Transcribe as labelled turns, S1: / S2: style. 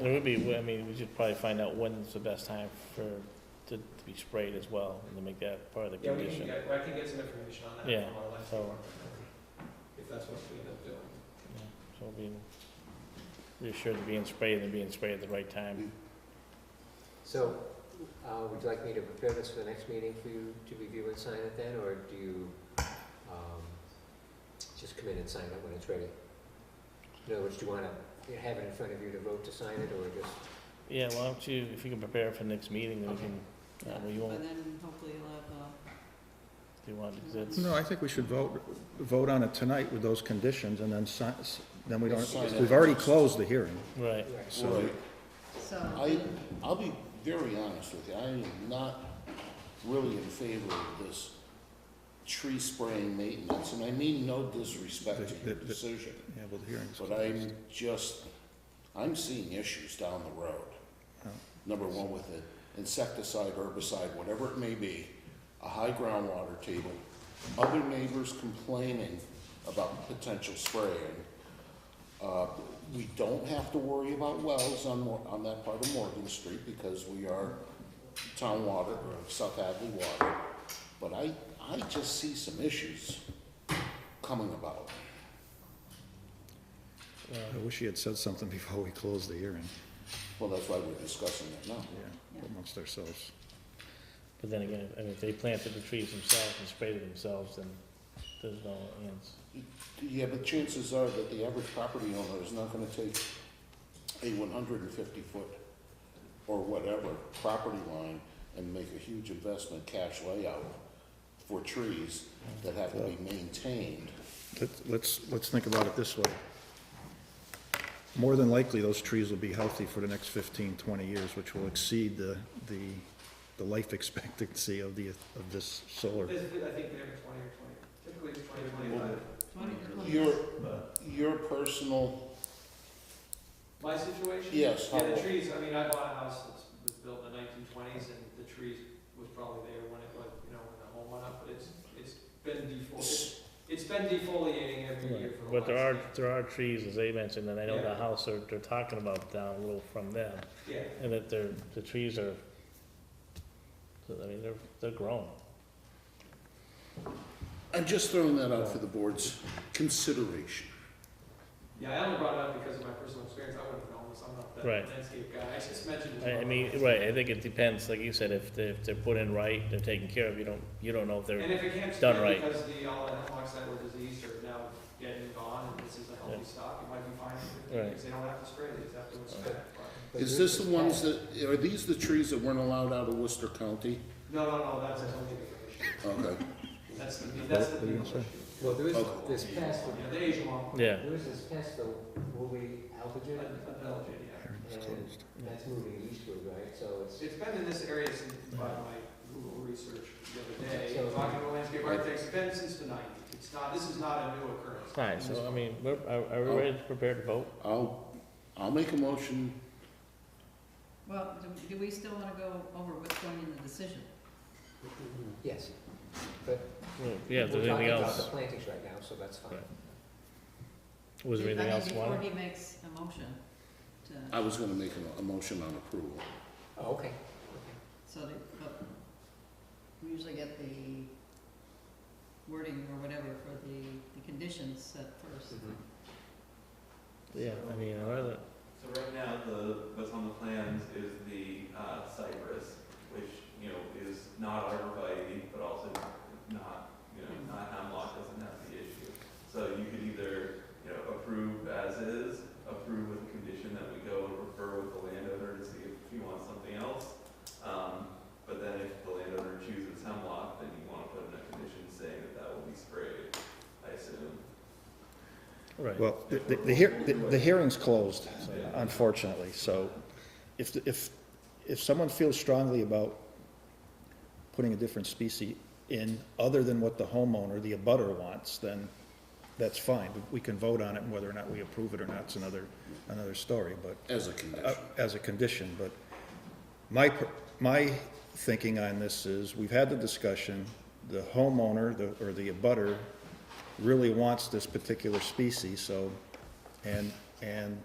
S1: It would be, I mean, we should probably find out when's the best time for, to to be sprayed as well, and to make that part of the
S2: Yeah, we can
S1: condition.
S2: get, I can get some information on that
S1: Yeah,
S2: from our electric
S1: so-
S2: department, if that's what we end up doing.
S1: Yeah, So being reassured of being sprayed and being sprayed at the right time.
S3: Mm-hmm.
S4: So, uh, would you like me to prepare this for the next meeting for you to review and sign it then, or do you, um, just come in and sign it when it's ready? In other words, do you wanna have it in front of you to vote to sign it, or just,
S1: Yeah, why don't you, if you can prepare for the next meeting, then we can, uh, well, you
S5: But
S1: won't,
S5: then hopefully you'll have, uh,
S1: do you want, because that's.
S6: No, I think we should vote, vote on it tonight with those conditions, and then si, then we don't,
S3: Sign it.
S6: we've already closed the hearing,
S1: Right,
S4: right,
S6: so.
S3: Right.
S5: so.
S3: I, I'll be very honest with you, I am not really in favor of this tree spraying maintenance, and I mean no disrespect to your
S6: The- the- the-
S3: decision,
S6: Yeah, well, the hearing's
S3: but I'm
S6: closed.
S3: just, I'm seeing issues down the road.
S6: Yeah.
S3: Number one with the insecticide, herbicide, whatever it may be, a high groundwater table, other neighbors complaining about potential spraying. Uh, We don't have to worry about wells on, Mor- on that part of Morgan Street because we are town water, or South Hadley water. But I, I just see some issues coming about.
S6: I wish he had said something before we closed the hearing,
S3: Well, that's why we're discussing it now.
S6: yeah, amongst ourselves.
S1: but then again, I mean, if they planted the trees themselves and sprayed it themselves, then there's no ends.
S3: Yeah, but chances are that the average property owner is not gonna take a one hundred and fifty foot or whatever property line and make a huge investment cash layout for trees that have to be maintained.
S6: Let- Let's, let's think about it this way. More than likely, those trees will be healthy for the next 15, 20 years, which will exceed the, the, the life expectancy of the, of this solar.
S2: This, I think they have a twenty or twenty, typically it's twenty, twenty-five.
S5: Twenty, twenty.
S3: Your, your personal,
S2: My situation?
S3: Yes,
S2: Yeah,
S3: how-
S2: the trees, I mean, I bought a house that was built in the nineteen twenties, and the trees was probably there when it was, you know, when the home went up, but it's, it's been defoliated.
S3: s-
S2: It's been defoliating every year for the
S1: But
S2: last.
S1: there are,
S2: year.
S1: there are trees, as they mentioned, and I know the
S2: Yeah.
S1: house they're, they're talking about down a little from them,
S2: Yeah,
S1: and that they're, the trees are, I mean, they're, they're grown.
S3: I'm just throwing that out for the board's consideration.
S2: yeah, I only brought it up because of my personal experience, I wouldn't have known this, I'm not that
S1: Right.
S2: landscape guy, I just mentioned it. to
S1: I, I
S2: my-
S1: mean, right, I think it depends, like you said, if they're, if they're put in right, they're taken care of, you don't, you don't know if
S2: And
S1: they're,
S2: if it can't
S1: done
S2: spread
S1: right.
S2: because the, all the hemlocks that were diseased are now dead and gone, and this is a
S1: Yeah.
S2: healthy stock, it might be fine,
S1: Right.
S2: because they don't have to spray, they just have to inspect. but-
S4: But
S3: Is
S4: yours
S3: this the ones that, are these the trees that weren't allowed out of Worcester County?
S2: No, no, no, that's a totally different issue,
S3: Okay.
S2: that's the, that's the legal issue.
S4: Well, there is
S3: Okay.
S4: this past,
S2: You know, the Asian one,
S1: yeah.
S4: there is this past, the Woolly
S2: a-
S4: Alphagen,
S2: a Belgian, yeah.
S6: Hearing's closed.
S4: and that's moving eastward, right, so it's,
S2: It's been in this area since, by my Google research the other day,
S4: So-
S2: talking to landscape architects, it's been since the nineties, it's not, this is not a new occurrence.
S1: Fine, so I mean, we're, are, are we ready to prepare to vote?
S3: I'll, I'll make a motion
S5: Well, do, do we still wanna go over what's going in the decision?
S4: yes.
S1: Yeah, if there's anything
S4: We're talking about
S1: else,
S4: the plantings right now, so that's fine.
S1: Right. was there
S5: I
S1: anything
S5: mean,
S1: else you
S5: Before
S1: wanted?
S5: he makes a motion to,
S3: I was gonna make a, a motion on approval.
S4: Oh, okay, okay.
S5: so that, but we usually get the wording or whatever for the, the conditions set first.
S4: Mhm.
S1: Yeah, I mean, I'd rather,
S7: So right now, the, what's on the plans is the uh, cypress, which, you know, is not arborvitae, but also not, you know, not hemlock, doesn't have the issue. So you could either, you know, approve as is, approve with the condition that we go and refer with the landowner to see if he wants something else. Um, But then if the landowner chooses hemlock, then you want to put in a condition saying that that will be sprayed, I assume.
S1: right,
S6: Well, the, the- the, hear- the- the hearing's closed, unfortunately, so if, if, if someone feels strongly about putting a different species in, other than what the homeowner, the abutter wants, then that's fine. We can vote on it, and whether or not we approve it or not, it's another, another story, but
S3: As a
S6: uh,
S3: condition.
S6: as a condition, but my, per- my thinking on this is, we've had the discussion, the homeowner, the, or the abutter really wants this particular species, so, and, and